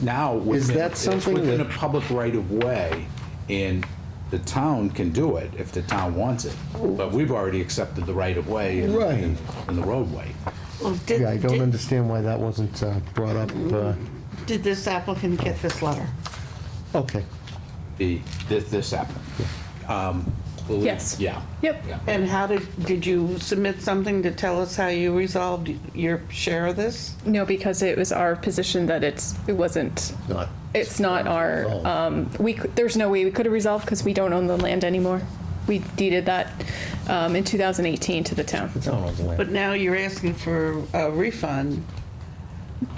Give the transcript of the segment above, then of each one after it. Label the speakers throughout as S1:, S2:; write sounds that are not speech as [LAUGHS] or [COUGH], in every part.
S1: now.
S2: Is
S1: within-
S2: that something
S1: It's within a
S2: that-
S1: public right of way and the town can do it if the town wants it. But we've already accepted the right of way and-
S2: Right.
S1: and and the roadway.
S3: Well, did-
S2: Yeah, I don't
S3: did-
S2: understand why that wasn't uh, brought up. uh,
S3: Did this applicant get this letter?
S2: Okay,
S1: The, this, this applicant. Um, believe-
S4: Yes.
S1: Yeah.
S4: Yep.
S1: Yeah.
S3: And how did, did you submit something to tell us how you resolved your share of this?
S4: No, because it was our position that it's, it wasn't,
S2: not,
S4: it's not our,
S2: Resolved.
S4: um, we, c- there's no way we could have resolved because we don't own the land anymore. We deeded that, um, in two thousand eighteen to the town.
S2: it's not on the land.
S3: But now you're asking for a refund.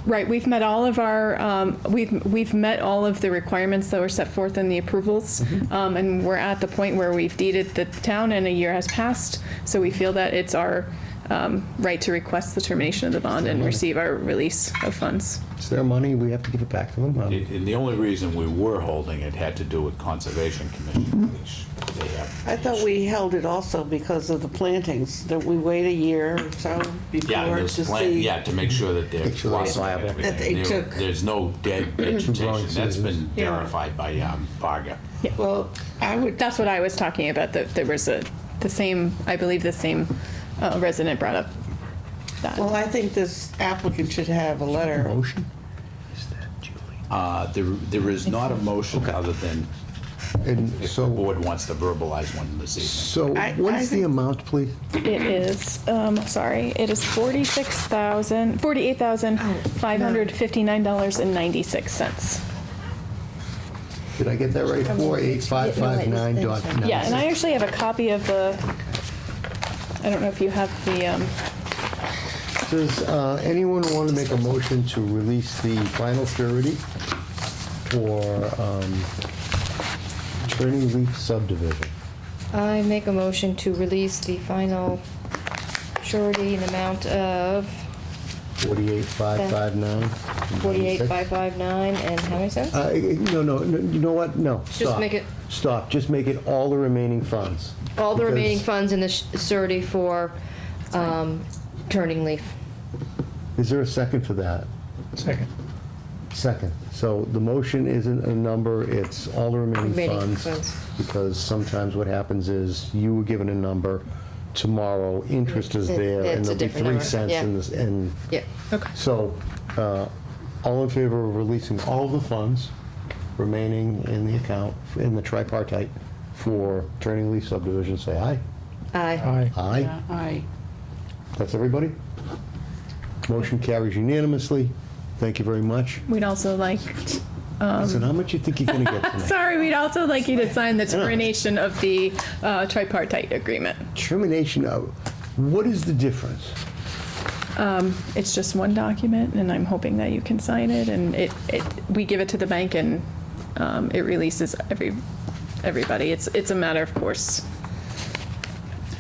S4: Right, we've met all of our, um, we've, we've met all of the requirements that were set forth in the approvals. Um, and we're at the point where we've deeded the town and a year has passed, so we feel that it's our, um, right to request the termination of the bond and receive our release of funds.
S2: It's their money, we have to give it back to them. huh?
S1: And and the only reason we were holding it had to do with Conservation Commission, which they have.
S3: I thought we held it also because of the plantings, that we wait a year or so
S1: Yeah,
S3: before to
S1: there's plan,
S3: see.
S1: yeah, to make sure that they're.
S2: Make sure they're liable.
S1: everything.
S3: That they
S1: There-
S3: took-
S1: There's no dead
S2: Wrong
S1: vegetation. That's been
S2: citizens.
S4: Yeah.
S1: verified by um, Varga.
S3: Well, I would,
S4: That's what I was talking about, that there was a, the same, I believe the same uh, resident brought up that.
S3: well, I think this applicant should have a letter.
S2: Motion?
S1: Uh, There, there is not a motion other than
S2: And
S1: if the
S2: so,
S1: board wants to verbalize one this evening.
S2: so
S3: I-
S2: what
S3: I
S2: is the
S3: think-
S2: amount, please?
S4: It is, um, sorry, it is forty-six thousand, forty-eight thousand, five hundred fifty-nine dollars and ninety-six cents.
S2: Did I get that right? Four eight five five nine dot nine.
S4: Yeah, and I actually have a copy of the, I don't know if you have the, um,
S2: Does uh, anyone want to make a motion to release the final surety for um, Turning Leaf subdivision?
S5: I make a motion to release the final surety in amount of
S2: Forty-eight five five nine.
S5: forty-eight five five nine and how many cents?
S2: Uh, No, no, no, you know what? No, stop.
S5: make it-
S2: Stop, just make it all the remaining funds.
S5: All the remaining
S2: Because-
S5: funds in the sh- surety for um, Turning Leaf.
S2: Is there a second for that?
S6: Second.
S2: Second. So the motion isn't a number, it's all the remaining
S5: Remaining
S2: funds.
S5: funds.
S2: Because sometimes what happens is you were given a number, tomorrow interest is
S5: It-
S2: there and
S5: it's
S2: there'll
S5: a
S2: be
S5: different
S2: three
S5: number,
S2: cents
S5: yeah.
S2: in this, and.
S5: Yeah.
S4: Okay.
S2: So, uh, all in favor of releasing all the funds remaining in the account, in the tripartite for Turning Leaf subdivision, say aye.
S5: Aye.
S6: Aye.
S2: Aye.
S3: I,
S2: That's everybody? Motion carries unanimously. Thank you very much.
S4: we'd also like,
S2: Listen, how much you think you're gonna get tonight?
S4: [LAUGHS] sorry, we'd also like you to sign the termination of the uh, tripartite agreement.
S2: Termination of, what is the difference?
S4: It's just one document, and I'm hoping that you can sign it, and it, it, we give it to the bank and, um, it releases every, everybody. It's, it's a matter of course.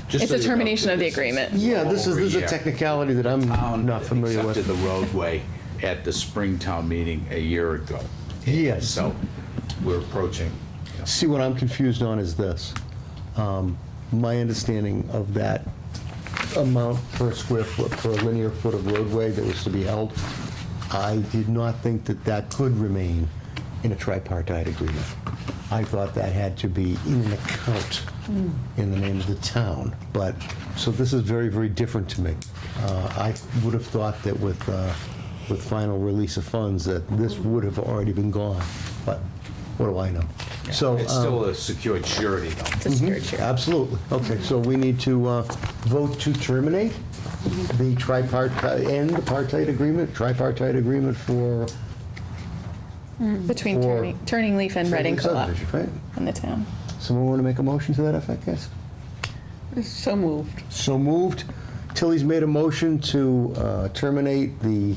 S1: Just
S4: It's
S1: so
S4: a
S1: you know,
S4: termination of the
S1: this is
S4: agreement.
S2: Yeah, this is, this is
S1: over
S2: a
S1: a year.
S2: technicality that I'm
S1: town
S2: not familiar
S1: accepted
S2: with.
S1: the roadway at the Springtown meeting a year ago.
S2: Yes.
S1: So we're approaching. you know,
S2: See, what I'm confused on is this. Um, My understanding of that amount per square foot, per linear foot of roadway that was to be held, I did not think that that could remain in a tripartite agreement. I thought that had to be in an account in the name of the town, but, so this is very, very different to me. Uh, I would have thought that with, uh, with final release of funds, that this would have already been gone, but what do I know? So.
S1: It's
S2: um,
S1: still a secured surety though.
S4: It's a secured share.
S2: Absolutely. Okay, so we need to uh, vote to terminate the tripartite, end the partite agreement, tripartite agreement for
S4: Between
S2: Or-
S4: Turning, Turning Leaf and
S2: Reading
S4: Reading Co-op
S2: subdivision, right?
S4: in the town.
S2: Someone want to make a motion to that effect, yes?
S3: so moved.
S2: So moved. Tilly's made a motion to uh, terminate the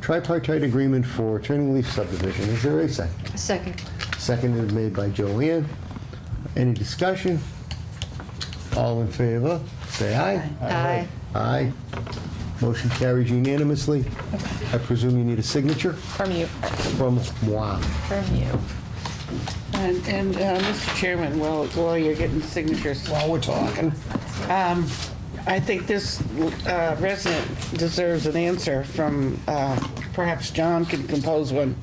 S2: tripartite agreement for Turning Leaf subdivision. Is there a second?
S5: Second.
S2: Second is made by Joanne. Any discussion? All in favor, say aye.
S5: Aye.
S2: Aye. Motion carries unanimously. I presume you need a signature
S4: From you,
S2: from moi.
S4: from you.
S3: And, and, uh, Mr. Chairman, while, while you're getting signatures. While Oh, we're talking. Um, I think this uh, resident deserves an answer from, uh, perhaps John can compose one.